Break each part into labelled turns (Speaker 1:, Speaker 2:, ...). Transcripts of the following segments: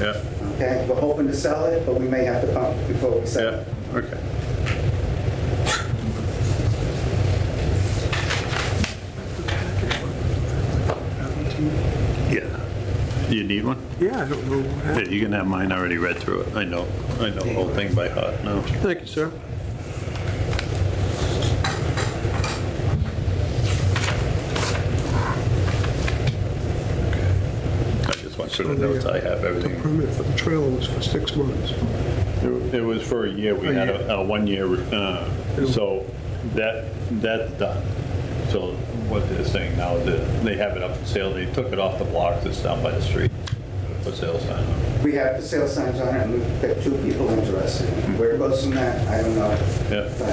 Speaker 1: Yeah,
Speaker 2: Okay, we're hoping to sell it, but we may have to pump it before we sell
Speaker 1: yeah,
Speaker 2: it.
Speaker 1: okay. Yeah. You need one?
Speaker 3: Yeah, I don't know what happened.
Speaker 1: Yeah, you can have mine, I already read through it. I know, I know the whole thing by heart now.
Speaker 3: Thank you, sir.
Speaker 1: I just went through the notes, I have
Speaker 3: The
Speaker 1: everything.
Speaker 3: permit for the trailer was for six months.
Speaker 1: It it was for a year, we
Speaker 3: A
Speaker 1: had
Speaker 3: year.
Speaker 1: a, a one-year, uh, so that, that's done. So what they're saying now, is that they have it up for sale, they took it off the blocks, it's down by the street, for sale sign.
Speaker 2: We have the sale signs on it, and we've got two people interested. Where it goes from that, I don't know.
Speaker 1: Yeah.
Speaker 2: But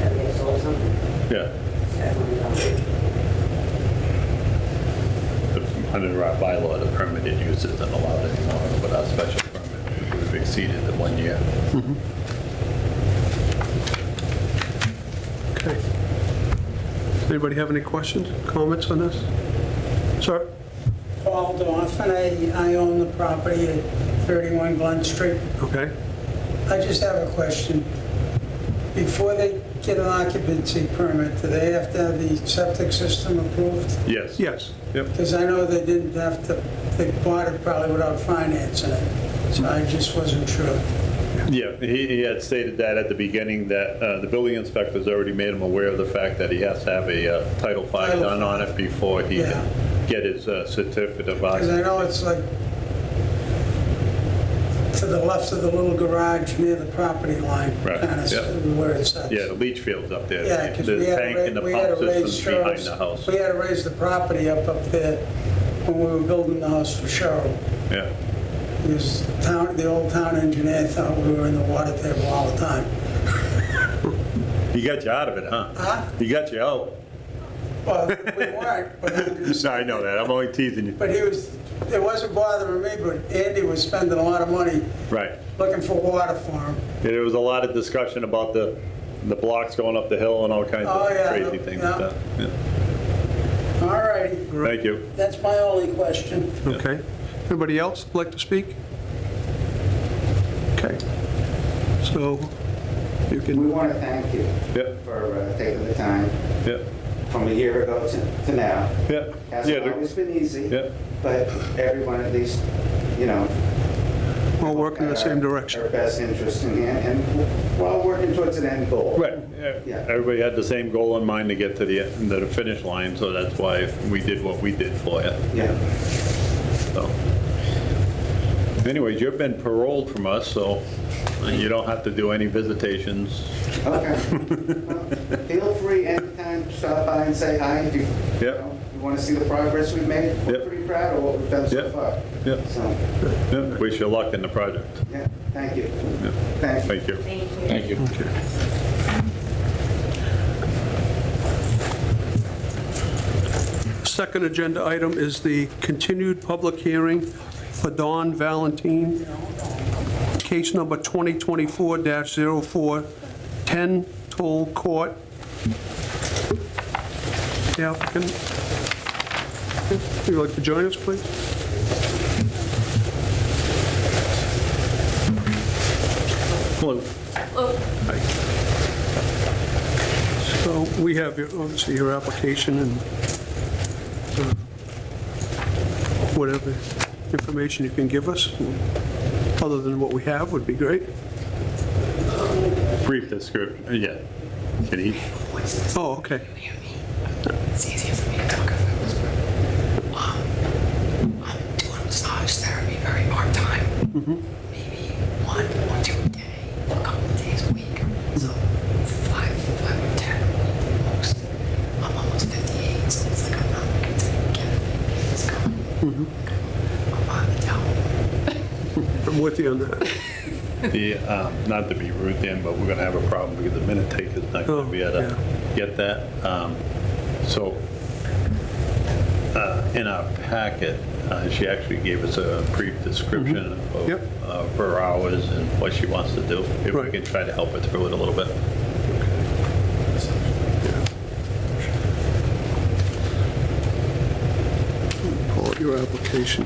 Speaker 4: Have they sold something?
Speaker 1: Yeah,
Speaker 4: It's definitely not.
Speaker 1: the- under our bylaw, the permitted use isn't allowed anymore, but our special permit would have exceeded the one year.
Speaker 3: Okay. Does anybody have any questions, comments on this? Sir?
Speaker 5: Paul Donovan, I, I own the property at 31 Glen Street.
Speaker 3: Okay.
Speaker 5: I just have a question. Before they get an occupancy permit, do they have to have the septic system approved?
Speaker 1: Yes.
Speaker 3: Yes.
Speaker 1: Yep.
Speaker 5: Because I know they didn't have to, they bought it probably without financing it, so I just wasn't sure.
Speaker 1: Yeah, he, he had stated that at the beginning, that uh, the building inspector's already made him aware of the fact that he has to have a uh, Title V
Speaker 5: Title
Speaker 1: done on it before he
Speaker 5: Yeah.
Speaker 1: can get his uh, certificate of
Speaker 5: Because I
Speaker 1: occupancy.
Speaker 5: know it's like to the left of the little garage near the property line,
Speaker 1: Right,
Speaker 5: kind
Speaker 1: yeah.
Speaker 5: of where it sits.
Speaker 1: Yeah, the leach field's up there.
Speaker 5: Yeah, because
Speaker 1: The
Speaker 5: we had
Speaker 1: tank
Speaker 5: to
Speaker 1: and
Speaker 5: ra-
Speaker 1: the
Speaker 5: we had
Speaker 1: pump
Speaker 5: to raise
Speaker 1: system's behind
Speaker 5: Cheryl's.
Speaker 1: the house.
Speaker 5: We had to raise the property up up there when we were building the house for Cheryl.
Speaker 1: Yeah,
Speaker 5: Because the town, the old town engineer thought we were in the water table all the time.
Speaker 1: he got you out of it, huh?
Speaker 5: Huh?
Speaker 1: He got you out.
Speaker 5: Well, we weren't, but I'm just-
Speaker 1: No, I know that, I'm only teasing you.
Speaker 5: but he was, it wasn't bothering me, but Andy was spending a lot of money
Speaker 1: Right.
Speaker 5: looking for water for him.
Speaker 1: Yeah, There was a lot of discussion about the, the blocks going up the hill and all kinds
Speaker 5: Oh,
Speaker 1: of
Speaker 5: yeah,
Speaker 1: crazy things like
Speaker 5: yeah.
Speaker 1: that. Yeah.
Speaker 5: All righty,
Speaker 1: Thank you.
Speaker 5: that's my only question.
Speaker 3: Okay. Anybody else like to speak? Okay. So you
Speaker 2: we
Speaker 3: can,
Speaker 2: want to thank you
Speaker 1: Yeah,
Speaker 2: for uh, taking the time
Speaker 1: yeah,
Speaker 2: from a year ago to to now.
Speaker 1: yeah. Yeah,
Speaker 2: Hasn't
Speaker 1: the-
Speaker 2: always been easy,
Speaker 1: Yeah.
Speaker 2: but everyone at least, you know.
Speaker 3: we're all working in the same
Speaker 2: had our-
Speaker 3: direction.
Speaker 2: Our best interest in hand, and we're all working towards an end goal.
Speaker 1: Right, yeah.
Speaker 2: Yeah.
Speaker 1: everybody had the same goal in mind to get to the, to the finish line, so that's why we did what we did for you,
Speaker 2: Yeah.
Speaker 1: so. Anyways, you've been paroled from us, so you don't have to do any visitations.
Speaker 2: Okay. Well, Feel free anytime, stop by and say hi if you, you
Speaker 1: Yep.
Speaker 2: know, you want to see the progress we've made.
Speaker 1: Yep.
Speaker 2: We're pretty proud of what we've done so
Speaker 1: Yep.
Speaker 2: far.
Speaker 1: Yep.
Speaker 2: So,
Speaker 1: Yeah, Wish you luck in the project.
Speaker 2: yeah, thank you.
Speaker 1: Yeah.
Speaker 2: Thank you.
Speaker 1: Thank you.
Speaker 4: Thank you.
Speaker 6: Thank you.
Speaker 3: Second agenda item is the continued public hearing for Don Valentine, case number 2024-0410, Toll Court. The applicant, would you like to join us, please?
Speaker 1: Hello.
Speaker 3: So we have, your- obviously, your application and uh, whatever information you can give us, other than what we have, would be great.
Speaker 1: Brief description, yeah. Can he?
Speaker 3: Oh, okay.
Speaker 7: hear me. It's easier for me to talk if I whisper. Um, I'm doing massage therapy very part time. Maybe one or two a day, a couple of days a week. So five, five or ten a week at most. I'm almost 58, so it's like I'm not going to get it. It's gone. I'm on the down.
Speaker 3: I'm with you on that.
Speaker 1: The, um, not to be rude then, but we're gonna have a problem because the minute taker's not gonna
Speaker 3: Oh,
Speaker 1: be able to get that. Um, So, uh, in our packet, uh, she actually gave us a brief description of
Speaker 3: Mm-hmm. Yep.
Speaker 1: of her hours and what she wants to do. If we
Speaker 3: Right.
Speaker 1: can try to help her through it a little bit.
Speaker 3: Pull up your application.